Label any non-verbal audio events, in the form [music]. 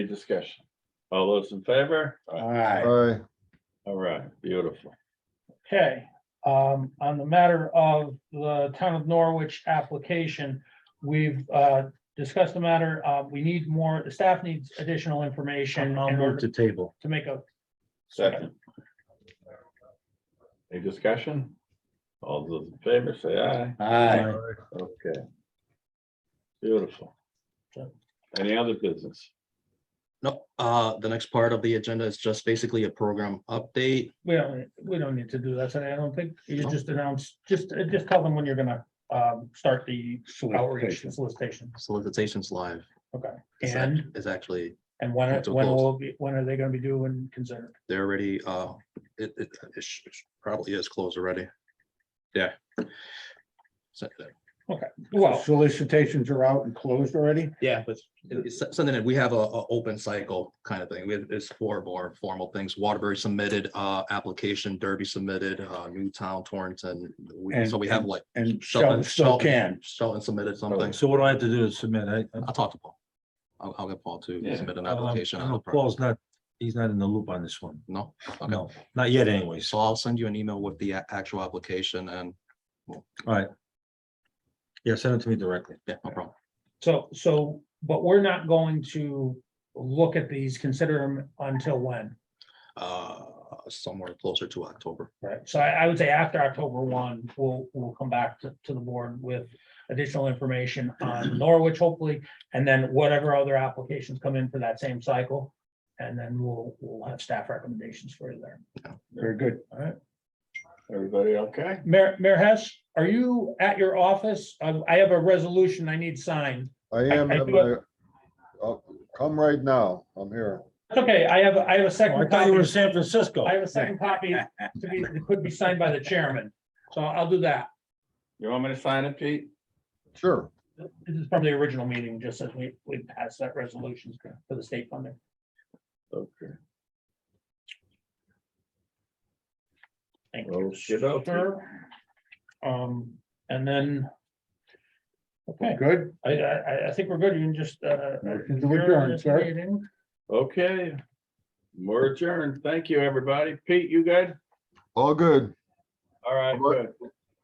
Any discussion? All those in favor? Aye. Aye. All right, beautiful. Okay, um, on the matter of the town of Norwich application, we've, uh, discussed the matter, uh, we need more, the staff needs additional information I'll in move order to table. to make a, Second. Any discussion? All those in favor, say aye. Aye. Okay. Beautiful. Any other business? No, uh, the next part of the agenda is just basically a program update. we don't, we don't need to do that, so I don't think, you just announce, just, uh, just tell them when you're gonna, um, start the outreach solicitation. Solicitations live is act- And, is actually, and when, it- when will, it be- when are they gonna be due and considered? they're already, uh, it, it, it sh- sh- probably is closed already. Yeah. So, Well, Solicitations are out and closed already? yeah, but it- it's so- something that we have a, a open cycle kind of thing. We have, it's four more formal things. Waterbury submitted, uh, application, Derby submitted, uh, Newtown, Torrington. We- And- So we have like And Shelton- Shelton still Shelton. can. Shelton submitted something. So what do I have to do to submit? I, I- I'll talk to Paul. I'll, I'll get Paul Yeah. to submit an I don't- application. I on the don't- pro- Paul's not, he's not in the loop on this one. No? Okay. No, not yet anyways. So I'll send you an email with the a- actual application and, Yeah, send it to me directly. yeah, no problem. so, so, but we're not going to look at these, consider them until when? Uh, somewhere closer to October. Right, so I, I would say after October one, we'll, we'll come back to, to the board with additional information on Norwich hopefully. And then whatever other applications come in for that same cycle. And then we'll, we'll have staff recommendations for you there. Very good. Everybody okay? Mayor, Mayor Hess, are you at your office? I, I have a resolution I need signed. I I- am, I at do my- oh, come right now, I'm here. It's Okay, I have, a- I have a Oh, I second thought you were in copy. San Francisco. I have a second copy to [laughs] be, that could be signed by the chairman. So I'll do that. You want me to sign it, Pete? Sure, This is from the original meeting, just as we, we passed that resolution for the state funding. Okay. Thank Well, Oh, you. shit, okay. sir. Um, and then. Okay, Good. I, I, I- I think we're good. You can just, uh. Motion to adjourn, this sir. meeting. Okay. We're adjourned. Thank you, everybody. Pete, you good? all good. All right, What? good.